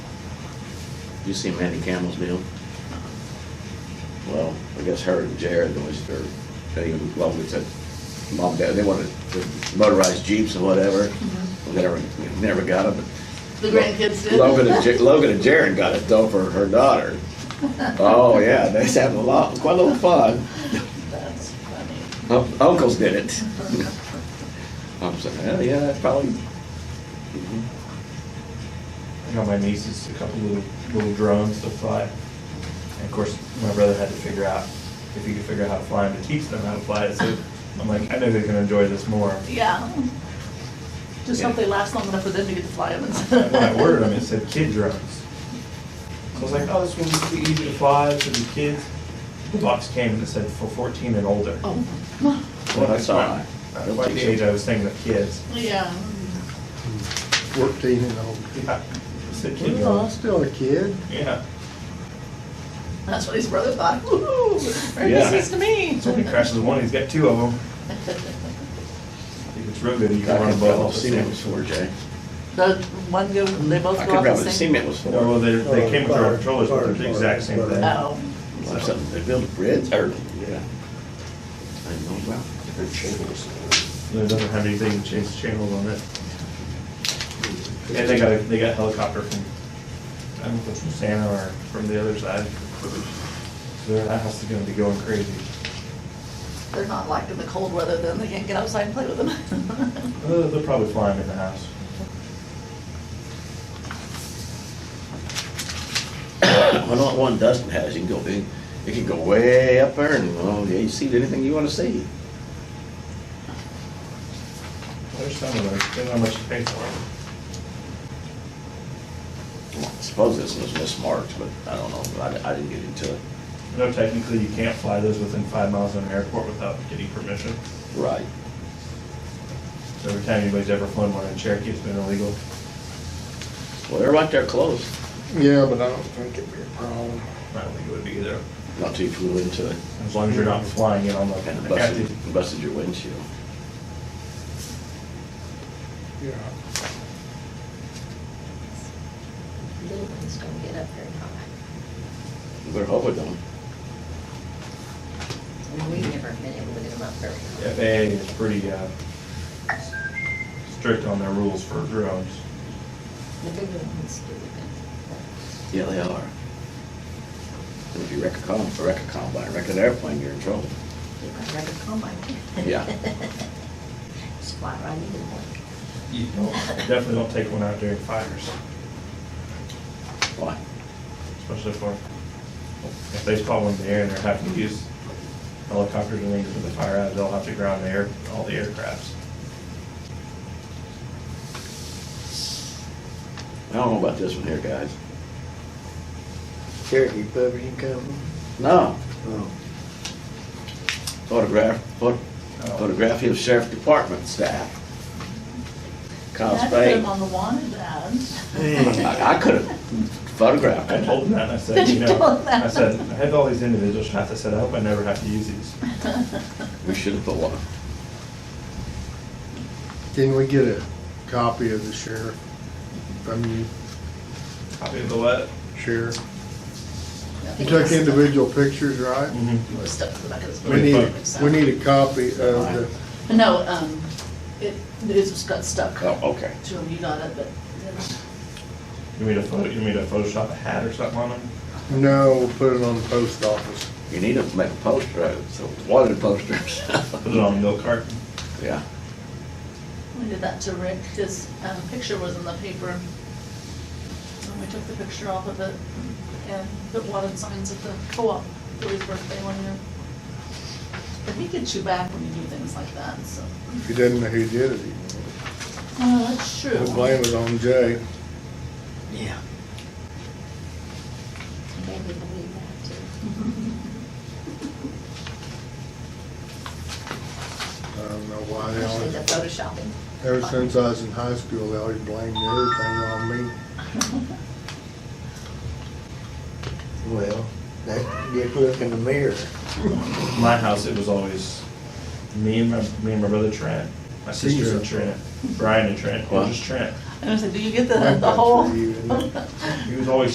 You see Mandy Campbell's deal? Well, I guess her and Jared was their, they, well, it's a, mom, dad, they wanted the motorized jeeps or whatever. We never, we never got them. Mm-hmm. The grandkids did. Logan and, Ja- Logan and Jared got it though for her daughter. Oh, yeah, they was having a lot, quite a little fun. That's funny. Un- Uncles did it. I'm saying, hell yeah, that's probably, I got my nieces a couple little, little drones to fly. And of course, my brother had to figure out if he could figure out how to fly them to teach them how to fly it. So I'm like, I know they're gonna enjoy this more. Yeah. Just hope they last long enough for them to get to fly them. And When I ordered them, it said kid drones. So I was like, oh, this will be easy to fly, this will be kids. The box came and it said for fourteen and older. Oh, well, that's all right. That's About the age I was thinking of kids. yeah. Fourteen and older. Yeah, It said kid Well, I'm drones. still a kid. Yeah. That's what his brother thought. Woohoo! Merry Yeah. Christmas to me. So when he crashes one, he's got two of them. If it's real good, you I can run can above probably all the see what it was same. for, Jay. The one go, they both I go can off probably the see same. what it was for. Or they, they came with our controllers, but they're the exact same thing. Oh, Or something, they built a bridge, or, yeah. I don't know about. It doesn't have anything to change the channels on it. And they got, a- they got helicopter from, I don't know if it's from Santa or from the other side. So their house is gonna be going crazy. they're not liking the cold weather, then they can't get outside and play with them. Uh, They'll probably fly them in the house. I know what one Dustin has, you can go big, it can go way up there and, oh, yeah, you see anything you wanna see. There's some of them, depending on how much you pay for them. I Suppose this was mismarked, but I don't know, I, I didn't get into it. I know technically you can't fly those within five miles of an airport without getting permission. Right. So every time anybody's ever flown one in Cherokee, it's been illegal. Well, they're right there close, Yeah, but I don't think it'd be a problem. I don't think it would be either, not too flew into it, as long as you're not flying in on the and active busted, busted your windshield. Yeah. Little ones don't get up very high. We're hoping them. I mean, We've never been able to get them up very high. FAA is pretty uh, strict on their rules for drones. The bigger ones do even. Yeah, they are. And if you wreck a com, wreck a combine, wreck an airplane, you're in trouble. You can rubber Oh combine. Yeah. Just fly right into one. You don't- Definitely don't take one out during fires, Why? especially for, if they spot one in the air and they're having to use helicopters and things for the fire out, they'll have to ground the air, all the aircrafts. I don't know about this one here, guys. Cherokee Publishing Company? No, Oh. photograph, phot- photography of sheriff department staff. Kyle Dad put Spade. them on the wanted ads. I could have photographed I it. told them that, and I said, you You told know, them that. I said, I have all these individual shots, I said, I hope I never have to use these. We should have put one. Can we get a copy of the sheriff from you, Copy of the what? sheriff? You took individual pictures, right? Mm. Mm-hmm. It was stuck to the back of his book. We need, we need a copy of the, No, um, it, it just got stuck to Oh, okay. him, you got it, but You mean to photo, you mean to Photoshop a hat or something on them? no, we'll put it on the post office. You need to make a poster out of it, so wanted posters. Put it on a milk carton? Yeah. we did that to Rick, his, um, picture was in the paper. And we took the picture off of it and put wanted signs at the co-op for his birthday one year. But he gets you back when you do things like that, so. If you didn't know who did it, Oh, that's true. we'll blame it on Jay. Yeah. Maybe believe that too. I don't know why they Especially the always, photoshopping. ever since I was in high school, they always blamed everything on me. Well, that, just look in the mirror. my house, it was always me and my, me and my brother Trent, my sister and Jesus. Trent, Brian and Trent, or just Trent. I was like, do you get the, Blamed the that whole? for you, didn't they? He was always